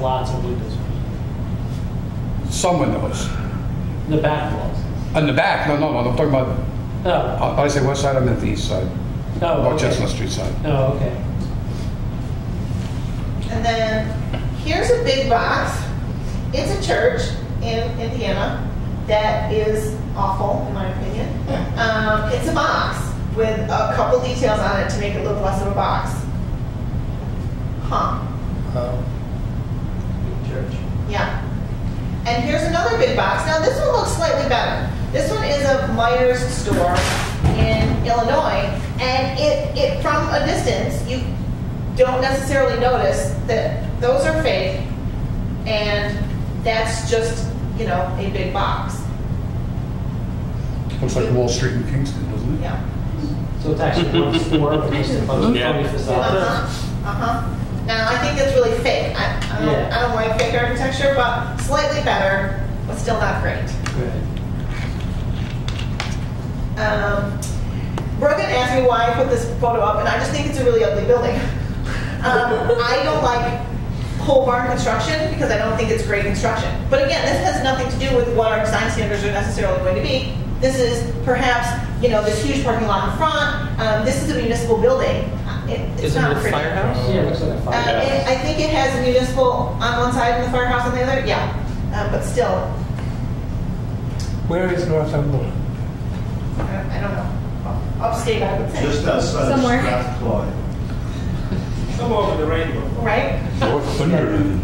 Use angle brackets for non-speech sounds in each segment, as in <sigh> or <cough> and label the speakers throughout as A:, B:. A: lots of windows.
B: Some windows.
A: The back walls.
B: On the back, no, no, no, I'm talking about,
A: Oh,
B: uh, I say west side, I meant the east side,
A: oh,
B: about
A: okay.
B: Chestnut Street side.
A: Oh, okay.
C: And then here's a big box. It's a church in Indiana that is awful, in my opinion. Um, it's a box with a couple details on it to make it look less of a box. Huh.
D: Church.
C: Yeah. And here's another big box. Now, this one looks slightly better. This one is a Myers store in Illinois, and it, it from a distance, you don't necessarily notice that those are fake, and that's just, you know, a big box.
B: Looks like Wall Street in Kingston, doesn't it?
C: Yeah.
A: So it's actually one store, but just a bunch of
E: Yeah.
A: funny facades.
C: Uh-huh, uh-huh. Now, I think that's really fake. I, I don't, I don't like fake architecture, but slightly better, but still not great.
A: Right.
C: Um, Brogan asked me why I put this photo up, and I just think it's a really ugly building. <laughs> Um, I don't like pole barn construction because I don't think it's great construction. But again, this has nothing to do with what our design standards are necessarily going to be. This is perhaps, you know, this huge parking lot in front. Um, this is a municipal building. It, it's
D: Isn't
C: not
D: it a
C: pretty.
D: firehouse?
A: Oh, Yeah, it looks like a
C: Uh,
A: fire.
C: it, I think it has a municipal on one side and the firehouse on the other. Yeah, um, but still,
F: Where is Northumberland?
C: I don't, I don't know. Upstate, I would say.
G: Just outside of
H: Somewhere.
G: Strathclyde.
I: Somewhere over the rainbow.
C: right?
E: Northumberland.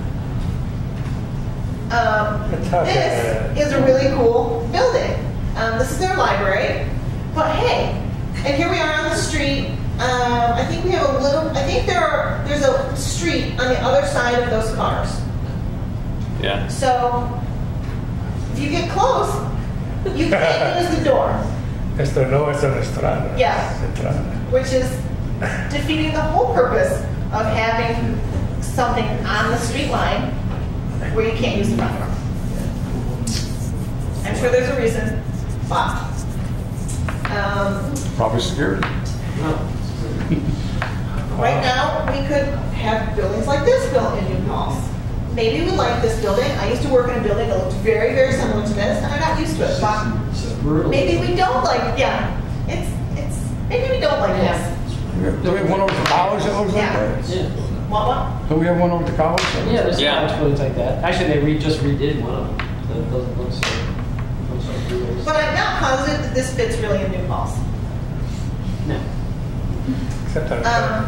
C: Um, this is a really cool building. Um, this is their library, but hey, and here we are on the street. Um, I think we have a little. I think there are. There's a street on the other side of those cars.
E: Yeah.
C: So if you get close, you can't use the door,
F: Esto no es una estrada.
C: Yeah.
F: Estrada.
C: which is defeating the whole purpose of having something on the street line where you can't use the front door. I'm sure there's a reason, but, um,
B: Probably security.
C: right now, we could have buildings like this built in New Paltz. Maybe we like this building, I used to work in a building that looked very, very similar to this, and I got used to it, but
I: It's brutal.
C: maybe we don't like, yeah, it's, it's, maybe we don't like this.
B: Do we have one over the college that looks like
C: Yeah.
B: that?
A: Yeah.
C: Want one?
B: Do we have one over the college? that looks-
A: Yeah, there's
E: Yeah.
A: yeah. college buildings like that. Actually, they re- just redid one of them. That doesn't look so. looks like yours.
C: But I'm not positive that this fits really in New Falls.
A: No.
F: Except on
C: Um,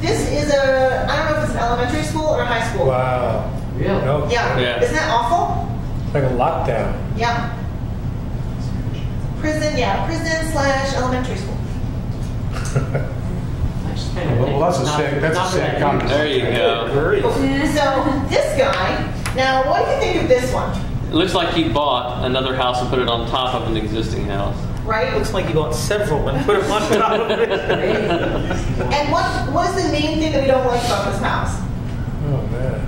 C: This is a, I don't know if it's an elementary school or a high school.
F: Wow.
A: Really?
F: No.
C: Yeah,
E: Yeah.
C: isn't that awful?
F: It's like a lockdown.
C: Yeah. Prison, yeah, prison slash elementary school.
A: That's kind of
B: Well, that's a
A: ridiculous.
B: sad,
A: Not-
B: that's a
A: not
B: sad
A: very-
B: comment.
E: There you go.
I: Very.
C: So this guy, now what do you think of this one?
E: It looks like he bought another house and put it on top of an existing house.
C: Right?
D: Looks like you bought several and uh, put them on top of it.
C: And what, what is the main thing that we don't like about this house?
F: Oh, man.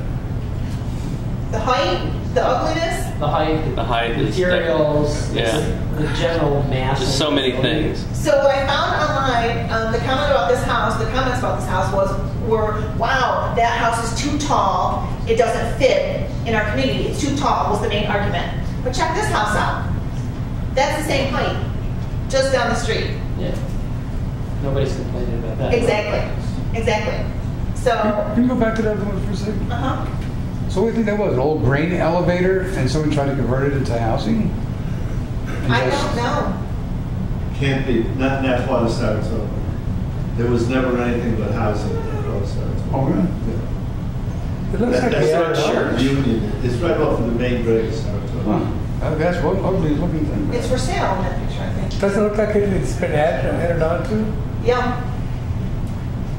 C: The height, the ugliness?
A: The height,
E: The height is
A: materials,
E: Yeah.
A: the general mass.
E: Just so
A: of the
E: many
A: building.
E: things.
C: So what I found online, um, the comment about this house, the comments about this house was, were, wow, that house is too tall, it doesn't fit in our community, it's too tall, was the main argument. But check this house out. That's the same height, just down the street.
A: Yeah. Nobody's complaining about that.
C: Exactly, exactly. So,
B: Can you go back to that one for a second?
C: uh-huh.
B: So what do you think that was, an old grain elevator, and someone tried to convert it into housing? And
C: I
B: just-
C: don't know.
G: Can't be, not, not part of Saratoga. There was never anything but housing in part of Saratoga.
B: Oh, really?
G: Yeah.
F: It looks
G: That-
F: like
G: That's not
F: a
G: sure. Union, it's right off of the main break of Saratoga.
B: Huh. Uh, That's one ugly looking thing.
C: It's for sale in that picture, I think.
F: Doesn't look like it- it's been added, added on to.
C: Yeah.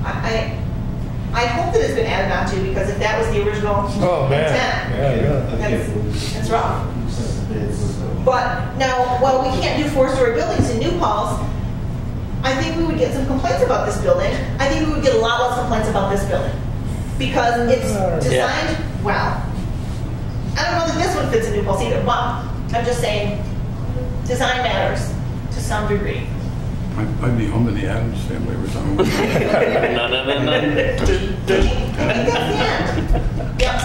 C: I, I, I hope that it's been added on to, because if that was the original
F: Oh, man.
C: intent,
F: Yeah,
G: I can't-
F: really.
G: I can't
C: That's-
G: believe-
C: that's wrong.
G: It's-
C: But now, while we can't do four-story buildings in New Paltz, I think we would get some complaints about this building. I think we would get a lot less complaints about this building because it's
D: Yeah.
C: designed well. I don't know that this one fits in New Paltz either, but I'm just saying, design matters to some degree.
B: I'd be home in the Adams family every <laughs> time.
E: No, no, no, no.
C: I think that's the end. Yep.